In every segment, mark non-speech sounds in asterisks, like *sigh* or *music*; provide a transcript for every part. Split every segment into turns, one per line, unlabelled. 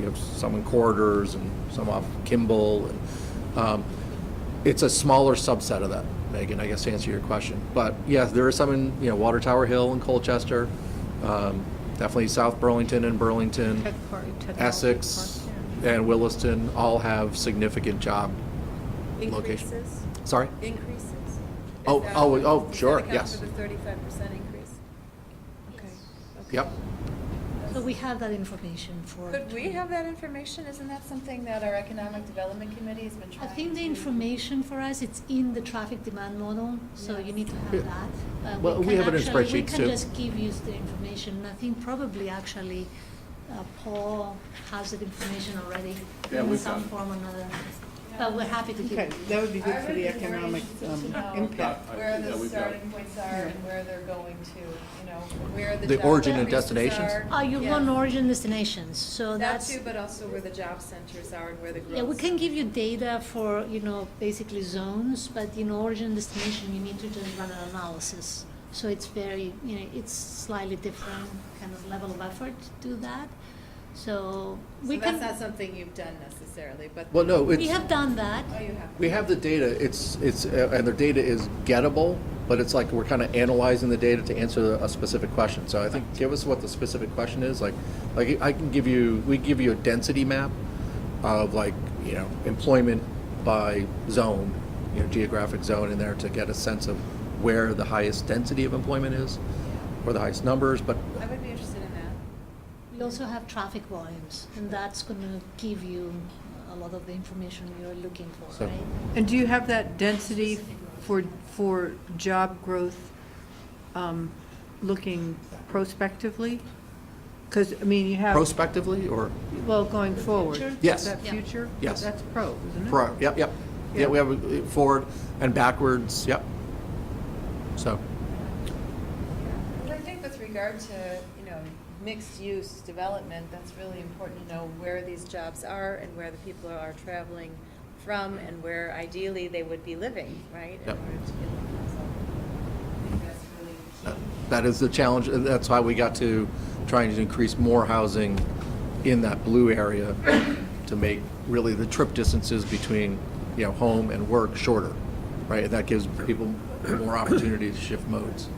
there's some in Corridors and some off Kimball. and, um, It's a smaller subset of that, Megan, I guess to answer your question. But yes, there are some in, you know, Water Tower Hill and Colchester, um, definitely South Burlington and Burlington.
Took part- took all the
Essex
part,
and Williston all have significant job location.
Increases?
Sorry?
Increases? Is
Oh,
that-
oh, oh,
does that
sure,
account
yes.
for the thirty-five percent increase? Okay. okay.
Yep.
So we have that information for.
Could we have that information? Isn't that something that our Economic Development Committee has been
I
trying to?
think the information for us, it's in the traffic demand model, so you need to have
Yeah.
that. Uh,
Well, we
can
have it in
actually-
spreadsheets,
We
too.
can just give you the information. I think probably actually uh, Paul has that information already
Yeah,
in
we've
some
done.
form or another. But we're happy to give
Okay,
it.
that would be good
I
for the
would be more
economic
interested to
um,
know
impact.
Where
Yeah,
the
we've got-
starting points are and where they're going to, you know, where the
The
job
origin
and
increases
destinations?
are.
Uh, you
Yeah.
want origin destinations, so
That
that's.
too, but also where the job centers are and where the growth.
Yeah, we can give you data for, you know, basically zones, but in origin destination, you need to just run an analysis. So it's very, you know, it's slightly different kind of level of effort to do that. So we
So
can.
that's not something you've done necessarily, but.
Well, no,
We
it's,
have done that.
Oh, you have.
we have the data, it's, it's, uh, and their data is gettable, but it's like we're kind of analyzing the data to answer a specific question. So I think, give us what the specific question is, like, like I can give you, we give you a density map of like, you know, employment by zone, you know, geographic zone in there to get a sense of where the highest density of employment is, or the highest numbers, but
I would be interested in that.
We also have traffic volumes, and that's going to give you a lot of the information you're looking for,
So-
right?
And do you have that density for, for job growth um, looking prospectively? Because, I mean, you have,
prospectively or?
well, going forward.
Future?
Yes.
Is that
Yeah.
future?
Yes.
That's pro, isn't it?
Pro, yep, yep. Yeah, we have uh, forward and backwards, yep. So,
Well, I think with regard to, you know, mixed-use development, that's really important to know where these jobs are and where the people are traveling from and where ideally they would be living, right? in
Yep.
order to get them. So I think that's really
uh,
key.
that is the challenge, and that's why we got to trying to increase more housing in that blue area to make really the trip distances between, you know, home and work shorter, right? And that gives people more opportunity to shift modes.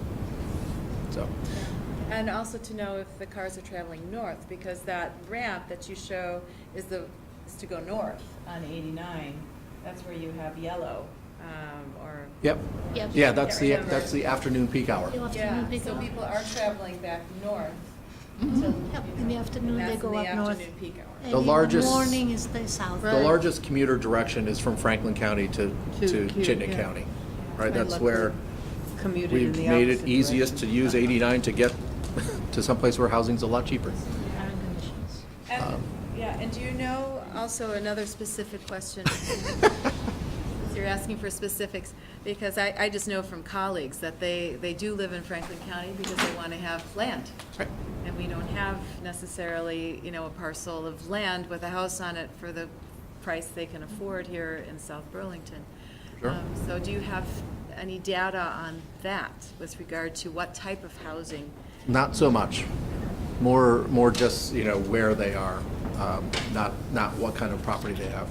So,
And also to know if the cars are traveling north, because that ramp that you show is the, is to go north on eighty-nine. That's where you have yellow, um, or.
yep.
Yep.
Yeah, that's the,
Remember.
that's the afternoon peak hour.
You'll have to
Yeah,
pick
so
up. Mm-hmm.
people are traveling back north. to-
Yep, in the afternoon, they
That's in
go
the
up north.
afternoon peak hour.
And
The
in
largest-
Morning is the south.
The largest commuter direction is from Franklin County to,
To
to
Kew,
Chittenden
yeah.
County, right?
I
That's
love
where.
Commuted in
We've
the
made
opposite
it easiest to
direction.
use 89 to get *laughs* to someplace where housing's a lot
*laughs*
cheaper.
Current conditions.
And,
Um,
yeah, and do you know, also another specific
*laughs*
question, since you're asking for specifics, because I, I just know from colleagues that they, they do live in Franklin County because they want to have land.
Right.
And we don't have necessarily, you know, a parcel of land with a house on it for the price they can afford here in South Burlington.
Sure.
Um, So do you have any data on that with regard to what type of housing?
Not so much. More, more just, you know, where they are, um, not, not what kind of property they have.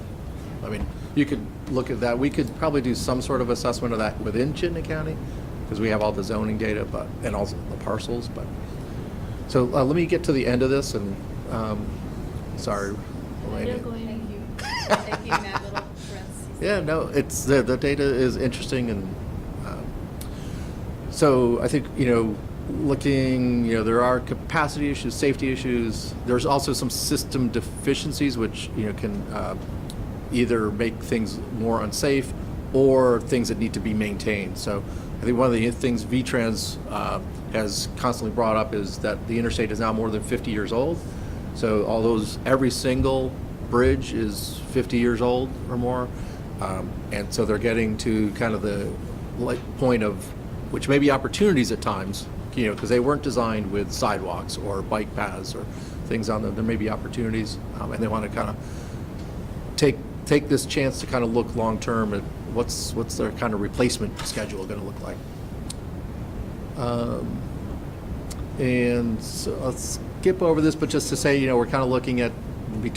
I mean, you could look at that, we could probably do some sort of assessment of that within Chittenden County, because we have all the zoning data, but, and also the parcels, but. So uh, let me get to the end of this, and, um, sorry. Elena.
We're going
Thank
*laughs*
you. Thank you, Matt Little, for
Yeah, no, it's, the, the data is interesting and, um, so I think, you know, looking, you know, there are capacity issues, safety issues. There's also some system deficiencies which, you know, can uh, either make things more unsafe or things that need to be maintained. So I think one of the things V-Trans uh, has constantly brought up is that the interstate is now more than 50 years old. So all those, every single bridge is 50 years old or more. Um, And so they're getting to kind of the like point of which may be opportunities at times, you know, because they weren't designed with sidewalks or bike paths or things on them. There may be opportunities, um, and they want to kind of take take this chance to kind of look long term at what's what's their kind of replacement schedule going to look like. Um, and so I'll skip over this, but just to say, you know, we're kind of looking at